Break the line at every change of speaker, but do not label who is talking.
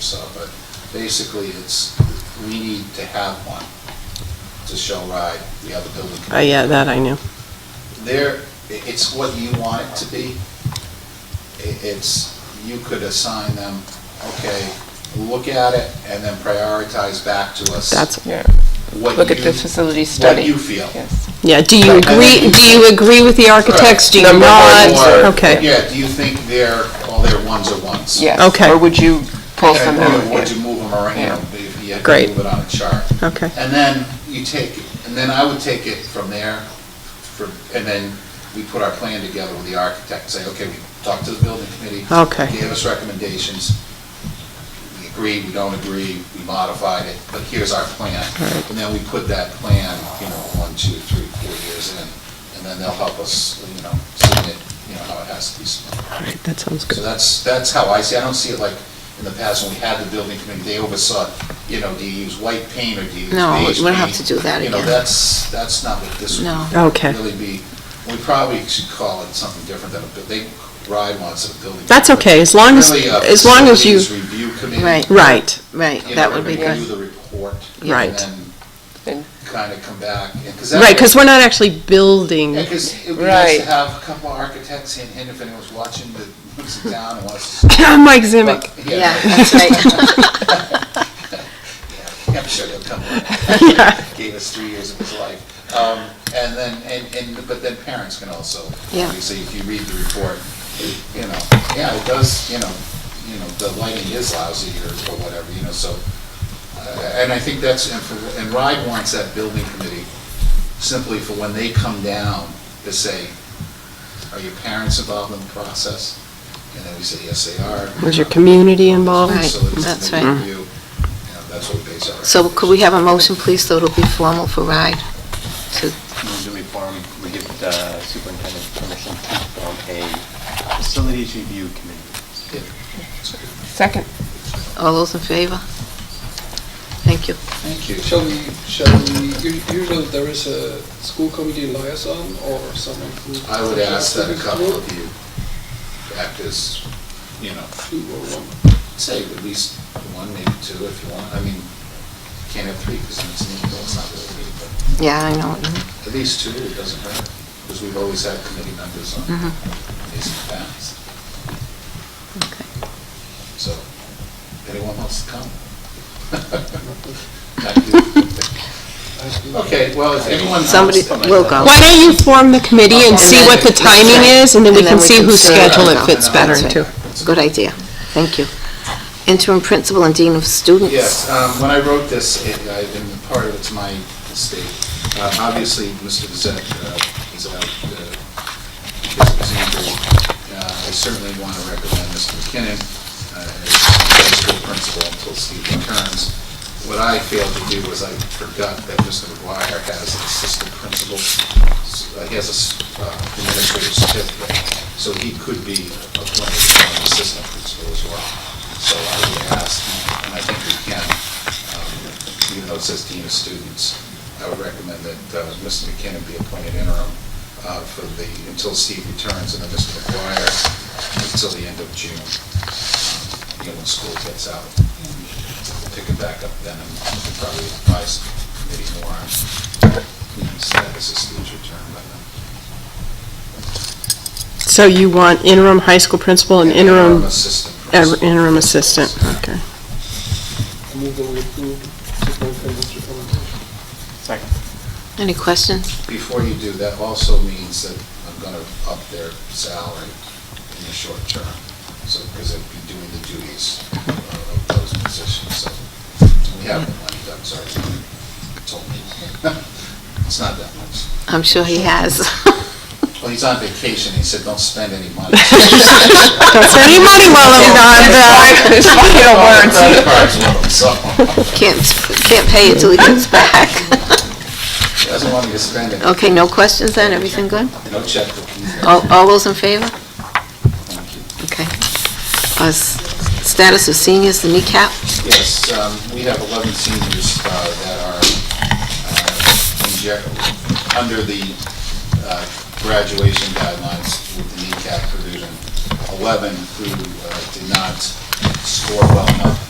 so, but basically, it's, we need to have one to show ride the other building.
Oh, yeah, that I knew.
There, i- it's what you want it to be. I- It's, you could assign them, okay, look at it, and then prioritize back to us.
That's,
Yeah,
what
look at
you-
the facility study.
you feel.
Yes.
yeah, do you
uh,
agree, do you agree with the architects, do you
Number
not?
one.
Okay,
Yeah, do you think they're, all their ones are ones?
Yes.
Okay.
Or would you pull
And
some
you-
out?
Would you move them around,
Yeah.
if you had to
Great.
move it on a chart?
okay,
And then you take, and then I would take it from there, for, and then we put our plan together with the architect, say, okay, we talked to the building committee.
Okay.
Gave us recommendations. We agreed, we don't agree, we modified it, but here's our plan. And then we put that plan, you know, one, two, three, four years in, and then they'll help us, you know, submit, you know, how it has to be submitted.
all right, that sounds
So
good.
that's, that's how I see, it. I don't see it like in the past when we had the building committee, they oversaw, you know, do you use white paint or do you use beige paint?
No, we don't have to do that
You know,
again.
that's, that's not what this would
No.
Okay.
really be. We probably should call it something different than a, bu- they ride once a building.
That's okay, as long as,
Really, a
as long as you,
facilities review committee.
Right.
right,
Right,
you know,
that would be
review
good.
the report.
Right.
And then
And-
kind of come back. and- that-
right, because we're not actually building,
Yeah, because it would be nice to
Right.
have a couple architects in, here if anyone's watching, that puts it down and wants to
Mike Zimic,
But,
Yeah, that's right.
Yeah, I'm sure he'll come around. Gave us three years of his life. Um, And then, and, and, but then parents can also,
Yeah.
obviously, if you read the report, it- you know, yeah, it does, you know, you know, the lighting is lousy or or whatever, you know, so. uh, And I think that's, and for, and RIDE wants that building committee simply for when they come down to say, are your parents involved in the process? And then we say, yes, they are.
was your community
Right.
involved?
So it's
that's
the
right.
review, you know, That's what we base our.
So could we have a motion, please, so it'll be formal for RIDE? to-
Move that we form, we give the superintendent permission to form a facilities review committee.
Second.
All those in favor? Thank you.
Thank you.
Shall we, shall we, u- usually there is a school committee liaison or someone who.
I would ask that a couple of you act as, you know,
Two or one.
say at least one, maybe two if you want. I mean, you can't have three because it's, an email, it's not really, three, but
Yeah, I know.
at least two, it doesn't hurt. Because we've always had committee members on these in the past.
Mm-hmm. Okay.
So, anyone wants to come? Thank you. Okay, well, if anyone else.
Somebody will go.
Why don't you form the committee and see what the timing is, and then we can see whose schedule it fits better into?
Good idea. Thank you. Interim principal and dean of students?
Yes, um, when I wrote this, it, I, and part of it's my mistake. Uh, obviously, Mr. Bissette, uh, is out, uh, his example. Uh, I certainly want to recommend Mr. McKinnon, uh, as high school principal until Steve returns. What I failed to do was I forgot that Mr. McGuire has an assistant principal. S- uh, He has a s- uh, administrative certificate, so he could be appointed as an assistant principal as well. So I would ask, and I think we can, um, even though it says dean of students, I would recommend that uh, Mr. McKinnon be appointed interim uh, for the, until Steve returns, and then Mr. McGuire until the end of June, um, you know, when school gets out. And we'll Pick it back up then, and we can probably advise the committee more on, you know, status of Steve's return uh, by then.
So you want interim high school principal and interim,
assistant.
uh,
principal.
interim assistant, okay.
I move that we approve superintendent's recommendation.
Second.
Any questions?
Before you do, that also means that I'm gonna up their salary in the short term, so, because they'd be doing the duties uh, of those positions, so. We have the money, I'm sorry, you told me. It's not that much.
I'm sure he has.
Well, he's on vacation, he said, don't spend any money.
Don't spend any money while I'm not back.
It's final words.
Credit cards with him, so,
Can't, can't pay it till he gets back.
he doesn't want me to spend it,
Okay, no questions then? Everything good?
no checkbook either.
All, all those in favor?
Thank you.
Okay. Uh, s- Status of seniors, the kneecap?
Yes, um, we have 11 seniors uh, that are uh, in ge- under the uh, graduation guidelines with the kneecap provision. 11 who uh, did not score well enough